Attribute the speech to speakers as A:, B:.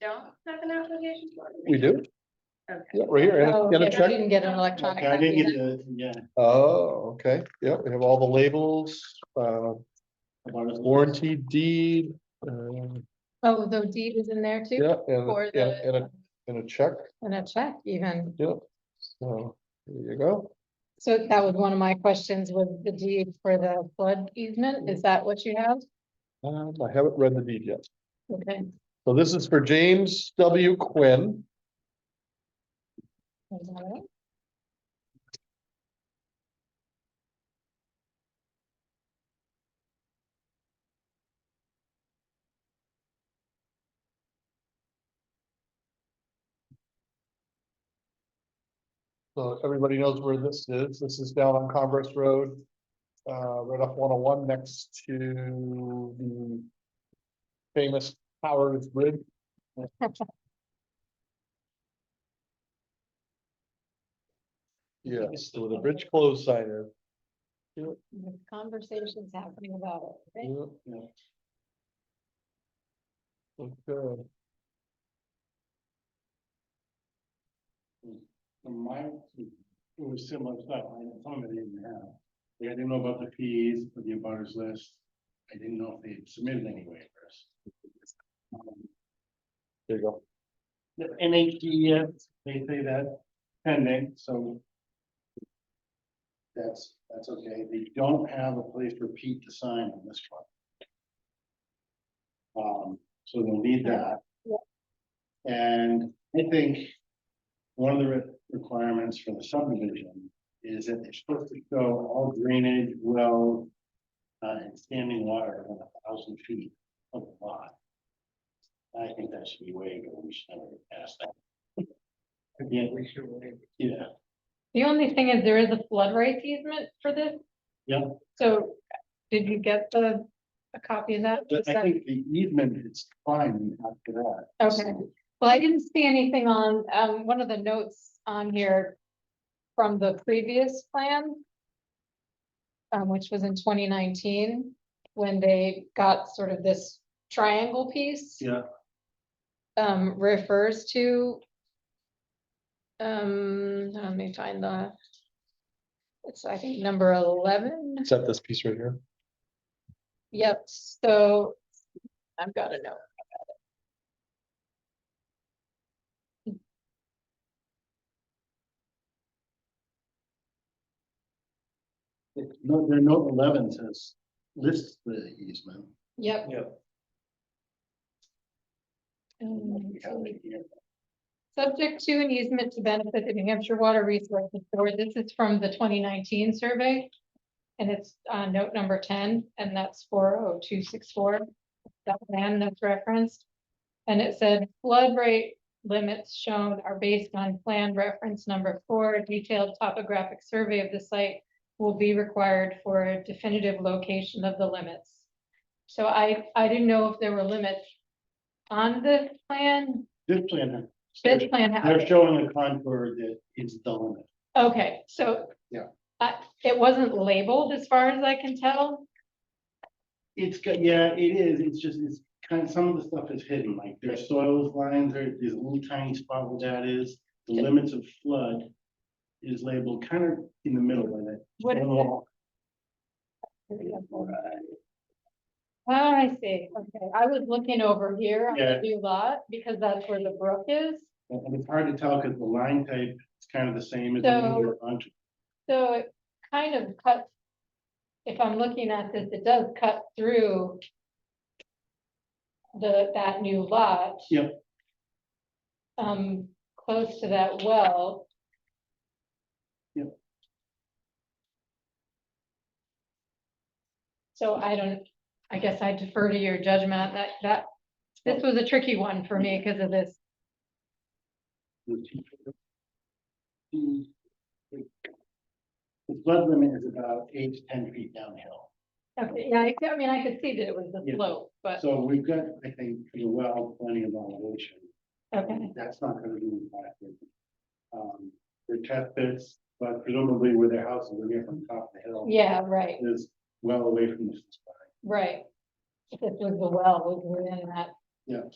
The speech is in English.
A: don't have an application for it?
B: We do?
A: Okay.
B: Yeah, right here.
C: Oh,
B: and- and
C: yeah,
B: a
C: you
B: check.
C: Didn't get an electronic
D: Okay, I didn't
C: copy.
D: get
C: then.
D: the, yeah,
B: Oh, okay. Yeah, we have all the labels, uh,
D: about it.
B: warranty deed, uh,
C: Oh, the deed is in there too?
B: yeah, and,
C: For
B: and, and
C: the,
B: a, and a check.
C: and a check even.
B: Yeah. So, there you go.
C: So that was one of my questions with the deed for the flood easement. Is that what you have?
B: Um, I haven't read the deed yet.
C: Okay.
B: So this is for James W. Quinn.
C: is that it?
B: So everybody knows where this is. This is down on Converse Road. Uh, right off one oh one next to the. Famous Powers Bridge. Yeah, so the bridge closed sign is.
C: The Conversations happening about it.
D: Mm-hmm.
C: right?
B: Yeah,
D: Yeah.
B: Okay,
D: From my, it was similar stuff, I had some of it in have. Like, I didn't know about the fees for the abutters list, I didn't know if they had submitted any waivers. Um,
B: there you go.
D: The NHDF, they say that pending, so. That's, that's okay, they don't have a place for Pete to sign on this one. Um, so they'll need that.
C: Yeah.
D: And I think one of the re- requirements for the subdivision is that they're supposed to go all drainage, well. Uh, and standing water within a thousand feet of the lot. I think that should be waived, or we should never pass that. Yeah, we should waive. it. Yeah,
C: The only thing is there is a flood rate easement for this.
D: Yeah.
C: So did you get the, a copy of that?
D: but
C: Is
D: I
C: that-
D: think the easement is fine after that.
C: Okay, well, I didn't see anything on, um, one of the notes on here from the previous plan. Um, which was in twenty nineteen, when they got sort of this triangle piece.
D: Yeah.
C: Um, refers to. Um, let me find the. It's, I think, number eleven.
B: Except this piece right here.
C: Yep, so I've got a note.
D: No, their note eleven says lists the easement.
C: Yep.
D: Yeah.
C: Um, so Subject to an easement to benefit the New Hampshire Water Resources Board. This is from the twenty nineteen survey. And it's uh note number ten, and that's four oh two six four. That plan that's referenced. And it said flood rate limits shown are based on plan reference number four. A Detailed topographic survey of the site will be required for a definitive location of the limits. So I I didn't know if there were limits on the plan.
D: This plan,
C: This plan. had-
D: they're showing a contour that is the limit.
C: Okay, so.
D: Yeah.
C: Uh, it wasn't labeled as far as I can tell.
D: It's, got- yeah, it is, it's just, it's kind of, some of the stuff is hidden, like their soils lines, there- there's a little tiny spot where that is. The
C: Yeah.
D: limits of flood is labeled kind of in the middle of it.
C: What is it?
D: Well, Oh,
C: Ah, I see. Okay, I was looking over here on
D: Yeah.
C: the new lot because that's where the brook is.
D: And and it's hard to tell because the line type is kind of the same as. the one we were on.
C: So it kind of cuts. If I'm looking at this, it does cut through. The, that new lot.
D: Yep.
C: Um, close to that well.
D: Yep.
C: So I don't, I guess I defer to your judgment that, that, this was a tricky one for me because of this.
D: The the flood limit is about eight to ten feet downhill.
C: Okay, yeah, I, I mean, I could see that it was the
D: Yeah.
C: slope, but,
D: So we've got, I think, pretty well plenty of elevation.
C: okay.
D: That's not gonna be impacted. Um, their test pits, but presumably where their houses are here from top of the hill.
C: Yeah, right,
D: Is well away from the.
C: right. If it was the well, was within that.
D: Yeah.